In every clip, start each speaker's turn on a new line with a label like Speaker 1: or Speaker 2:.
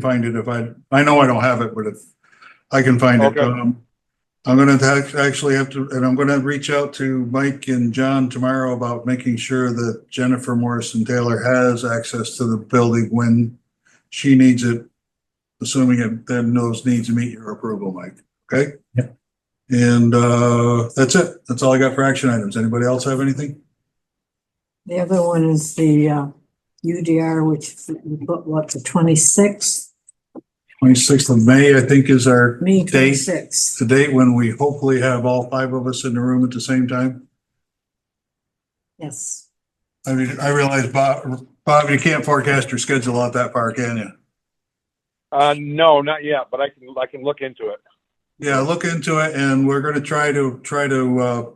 Speaker 1: find it if I, I know I don't have it, but if I can find it.
Speaker 2: Okay.
Speaker 1: um, I'm gonna act- actually have to, and I'm gonna reach out to Mike and John tomorrow about making sure that Jennifer Morrison Taylor has access to the building when she needs it, assuming it then those needs meet your approval, Mike, okay?
Speaker 3: Yep.
Speaker 1: And uh, that's it. That's all I got for action items. Anybody else have anything?
Speaker 4: The other one is the uh, UDR, which we put what, the twenty-sixth,
Speaker 1: Twenty-sixth of May, I think, is our,
Speaker 4: May
Speaker 1: Date.
Speaker 4: twenty-sixth.
Speaker 1: the date when we hopefully have all five of us in the room at the same time.
Speaker 4: Yes,
Speaker 1: I mean, I realize Bob, Bob, you can't forecast your schedule out that far, can you?
Speaker 2: Uh, no, not yet, but I can, I can look into it.
Speaker 1: Yeah, look into it and we're gonna try to, try to, uh,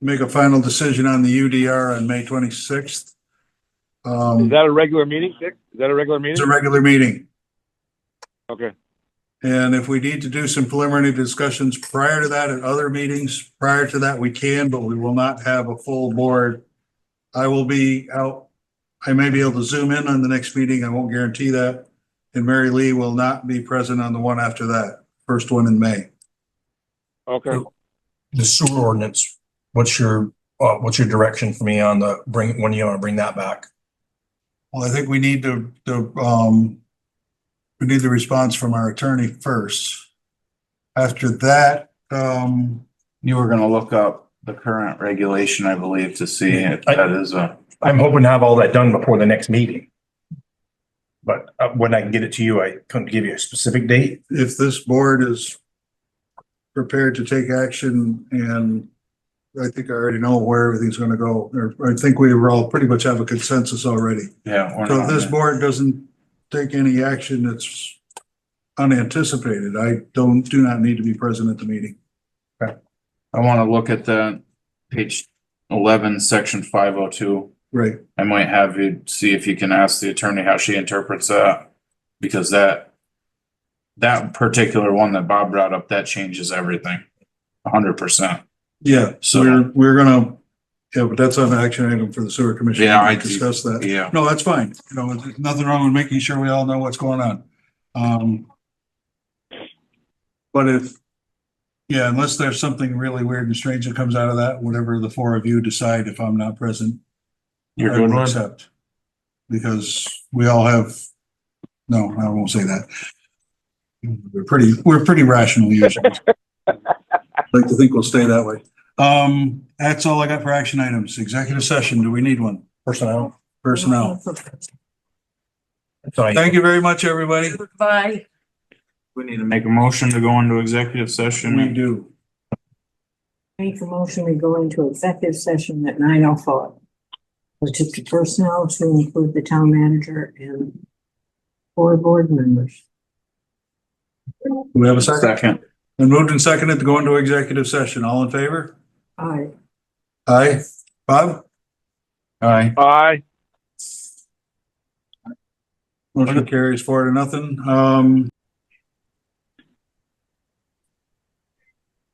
Speaker 1: make a final decision on the UDR on May twenty-sixth.
Speaker 2: Is
Speaker 1: Um,
Speaker 2: that a regular meeting, Dick? Is that a regular
Speaker 1: it's
Speaker 2: meeting?
Speaker 1: a regular meeting.
Speaker 2: Okay,
Speaker 1: And if we need to do some preliminary discussions prior to that at other meetings, prior to that, we can, but we will not have a full board. I will be out, I may be able to zoom in on the next meeting, I won't guarantee that. And Mary Lee will not be present on the one after that, first one in May.
Speaker 2: okay.
Speaker 3: the sewer ordinance, what's your, uh, what's your direction for me on the bring, when you want to bring that back?
Speaker 1: Well, I think we need to, to, um, we need the response from our attorney first. After that, um,
Speaker 5: You were gonna look up the current regulation, I believe, to see if
Speaker 3: I-
Speaker 5: that is a,
Speaker 3: I'm hoping to have all that done before the next meeting. But uh, when I can get it to you, I couldn't give you a specific date.
Speaker 1: if this board is prepared to take action and I think I already know where everything's gonna go, or I think we were all pretty much have a consensus already.
Speaker 5: yeah. we're
Speaker 1: So if
Speaker 5: not-
Speaker 1: this board doesn't take any action that's unanticipated, I don't, do not need to be present at the meeting.
Speaker 5: I wanna look at the page eleven, section five oh two.
Speaker 1: Right,
Speaker 5: I might have you see if you can ask the attorney how she interprets that, because that that particular one that Bob brought up, that changes everything, a hundred percent.
Speaker 1: yeah, so
Speaker 5: So-
Speaker 1: we're, we're gonna, yeah, but that's on the action item for the sewer commission.
Speaker 5: Yeah, I-
Speaker 1: Discuss that.
Speaker 5: Yeah,
Speaker 1: No, that's fine. You know, there's nothing wrong with making sure we all know what's going on. Um. But if, yeah, unless there's something really weird and strange that comes out of that, whatever the four of you decide, if I'm not present,
Speaker 5: you're
Speaker 1: I
Speaker 5: good
Speaker 1: will
Speaker 5: one.
Speaker 1: accept. Because we all have, no, I won't say that. We're pretty, we're pretty rational usually. Like to think we'll stay that way. Um, that's all I got for action items. Executive session, do we need one?
Speaker 3: Personnel.
Speaker 1: Personnel.
Speaker 3: So I,
Speaker 1: Thank you very much, everybody.
Speaker 4: Bye.
Speaker 5: We need to make a motion to go into executive
Speaker 1: We
Speaker 5: session.
Speaker 1: do.
Speaker 4: Make a motion, we go into executive session at nine oh four. Which is the personnel to include the town manager and four board members.
Speaker 1: Do we have a second?
Speaker 5: Second,
Speaker 1: And moved and seconded to go into executive session. All in favor?
Speaker 4: Aye.
Speaker 1: Aye. Bob?
Speaker 5: aye.
Speaker 2: Bye.
Speaker 1: Motion carries four to nothing. Um,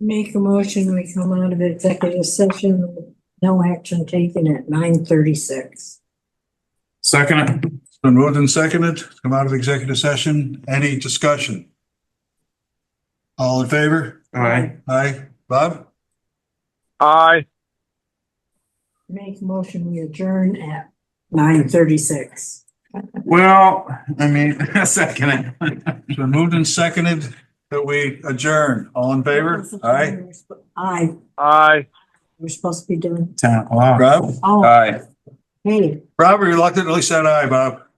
Speaker 4: Make a motion, we come out of executive session, no action taken at nine thirty-six.
Speaker 5: Second,
Speaker 1: it's been moved and seconded, to come out of executive session. Any discussion? All in favor?
Speaker 5: aye.
Speaker 1: Aye. Bob?
Speaker 2: Bye.
Speaker 4: Make a motion, we adjourn at nine thirty-six.
Speaker 5: Well, I mean, second it.
Speaker 1: It's been moved and seconded that we adjourn. All in favor? Aye.
Speaker 4: Aye,
Speaker 2: Aye.
Speaker 4: we're supposed to be doing,
Speaker 5: Ten o'clock.
Speaker 1: Rob?
Speaker 4: oh,
Speaker 5: Aye.
Speaker 4: hey.
Speaker 1: Rob reluctantly said aye, Bob.